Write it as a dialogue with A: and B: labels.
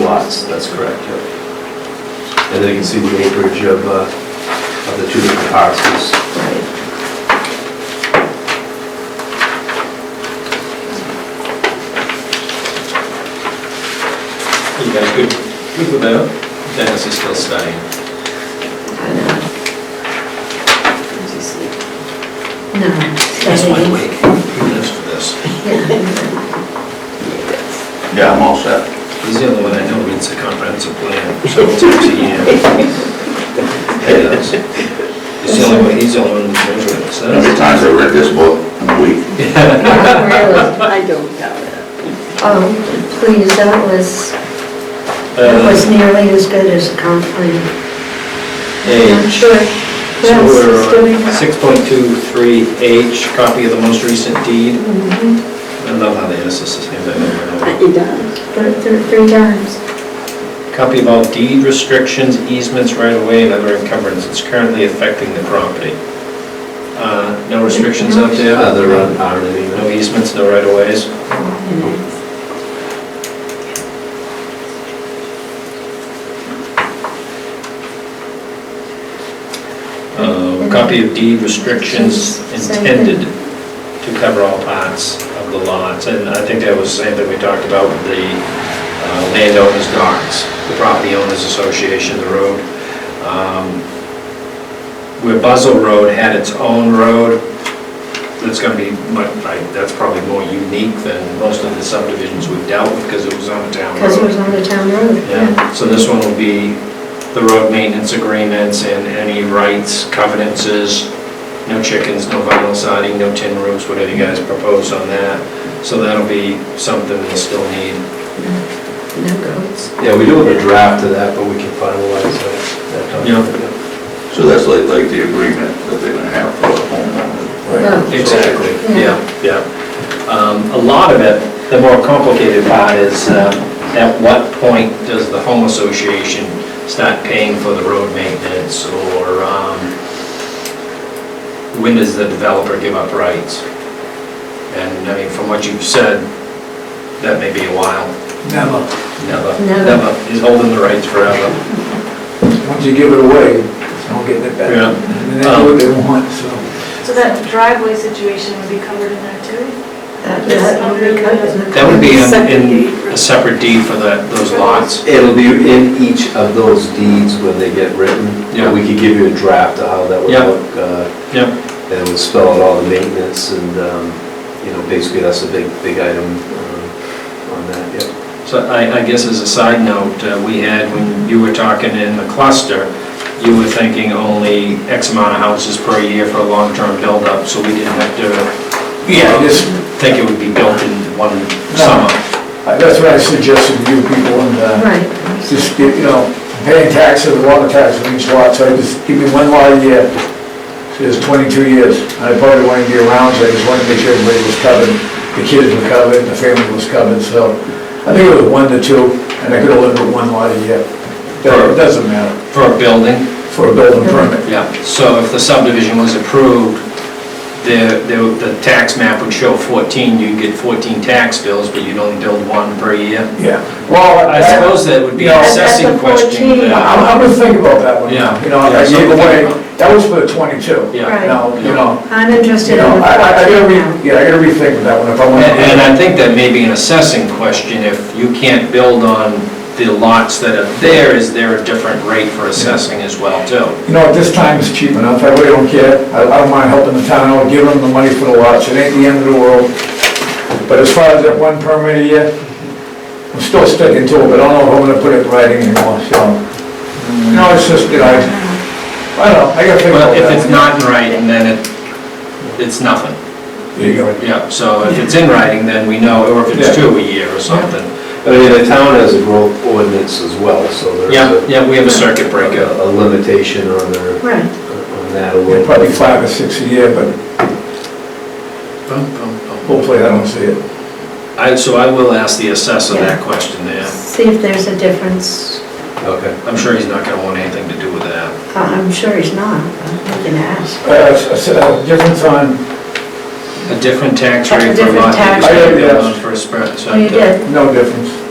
A: lots, that's correct, yep. And then you can see the acreage of, uh, of the two different parcels.
B: Right.
C: You guys good, good with that? Dennis is still studying.
B: I know. Did you sleep? No.
C: That's why I'm awake. Who knows for this?
D: Yeah, I'm all set.
C: He's the only one I know reads the comprehensive plan, so it's up to him. He does. He's the only one, he's the only one who knows what it
D: How many
C: says.
D: times I read this book in a week?
B: Really?
E: I don't doubt it.
B: Oh, please, that was,
C: Uh,
B: that was nearly as good as a comp plan. I'm
C: H,
B: sure.
C: so
B: Yes,
C: we're
B: it's doing
C: on
B: that.
C: six point two three H, copy of the most recent deed.
B: Mhm.
C: I love how they ask us the same thing over and over.
E: It does.
B: But three, three times.
C: Copy of all deed restrictions, easements, right-of-way, and other encumbrances currently affecting the property. Uh, No restrictions out there?
A: Yeah, Uh, they're on, on any,
C: No easements, no right-of-ways? Uh, Copy of deed restrictions
B: Same thing.
C: intended to cover all parts of the lots. And I think that was the same thing we talked about with the uh, landowners' docs, the property owners' association, the road. Um, Where Buzzell Road had its own road, that's gonna be, mu- I- that's probably more unique than most of the subdivisions we've dealt with because it was on a town road.
B: Because it was on the town road.
C: Yeah, so this one will be the road maintenance agreements and any rights, covenances, no chickens, no vinyl siding, no tin roofs, whatever you guys propose on that. So that'll be something we'll still need.
B: No goats.
A: yeah, we do have a draft of that, but we can finalize that, that document.
C: Yeah.
D: So that's like, like the agreement that they're gonna have for the homeowner.
B: Right.
C: Exactly,
B: Yeah.
C: yeah, yeah. Um, A lot of it, the more complicated part is, um, at what point does the home association start paying for the road maintenance, or um, when does the developer give up rights? And, I mean, from what you've said, that may be a while.
F: Never.
C: Never,
B: Never.
C: never, he's holding the rights forever.
F: Once you give it away, it's not getting it back.
C: Yeah.
F: And they do what they want, so.
G: So that driveway situation would be covered in there too?
B: That, that would be cut in the.
C: That would be in- uh,
E: Separate deed.
C: in a separate deed for the- those lots.
A: It'll be in each of those deeds when they get written.
C: Yeah.
A: We could give you a draft of how that would
C: Yeah.
A: look, uh,
C: Yep.
A: and it would spell out all the maintenance and, um, you know, basically that's a big, big item um, on that, yeah.
C: So I, I guess as a side note, uh, we had, when you were talking in the cluster, you were thinking only X amount of houses per year for a long-term build-up, so we didn't have to, you know,
F: Yes.
C: think it would be built in one
F: No.
C: summer.
F: I- That's what I suggested to you people, and uh,
B: Right.
F: just, get, you know, paying taxes, water tax on each lot, so I just give me one lot a year. So it's 22 years. I probably wanted to be around, so I just wanted to make sure everybody was covered. The kids were covered, the family was covered, so I think it was one to two, and I could have lived with one lot a year. But It doesn't matter
C: For a building?
F: for a building permit.
C: Yeah, so if the subdivision was approved, the, the- the tax map would show 14, you'd get 14 tax bills, but you'd only build one per year.
F: Yeah. Well,
C: I suppose that would be an
F: No.
C: assessing
E: That's a 14.
C: question. uh, but-
F: I'm, I'm gonna think about that one.
C: Yeah.
F: You know, I
C: Yeah,
F: gave
C: something
F: away,
C: about-
F: that was for the twenty-two.
C: Yeah.
B: Right.
F: Now, you know,
B: I'm
F: you
B: interested in
F: know,
B: the
F: I, I I gotta
B: project
F: re,
B: now.
F: yeah, I gotta rethink that one if I want.
C: And and I think that may be an assessing question, if you can't build on the lots that are there, is there a different rate for assessing as well, too?
F: You know, at this time it's cheap enough, I really don't care, I, I don't mind helping the town, I'll give them the money for the lots, it ain't the end of the world. But as far as that one permit a year, I'm still sticking to it, but I don't know if I'm gonna put it in writing anymore, so. You know, it's just, you know, I, I don't know, I gotta think
C: Well,
F: about that.
C: if it's
F: one.
C: not in writing, then it, it's nothing,
F: There you go.
C: yeah, so if it's in writing, then we know, or if it's two a year or something.
A: I mean, the town has a growth ordinance as well, so there's
C: Yeah,
A: a...
C: yeah, we have a circuit breaker.
A: A limitation on their,
B: Right.
A: on that a little bit.
F: Probably five or six a year, but hopefully I don't see it.
C: I, so I will ask the assessor that question there,
B: See if there's a difference.
A: Okay.
C: I'm sure he's not gonna want anything to do with that.
B: Uh, I'm sure he's not, but we can ask.
F: Uh, s- s- difference on,
C: A different tax rate for a
B: Different
C: lot,
B: tax
C: that you
F: rate.
C: build on for a spread.
B: Oh, you did?
F: no difference.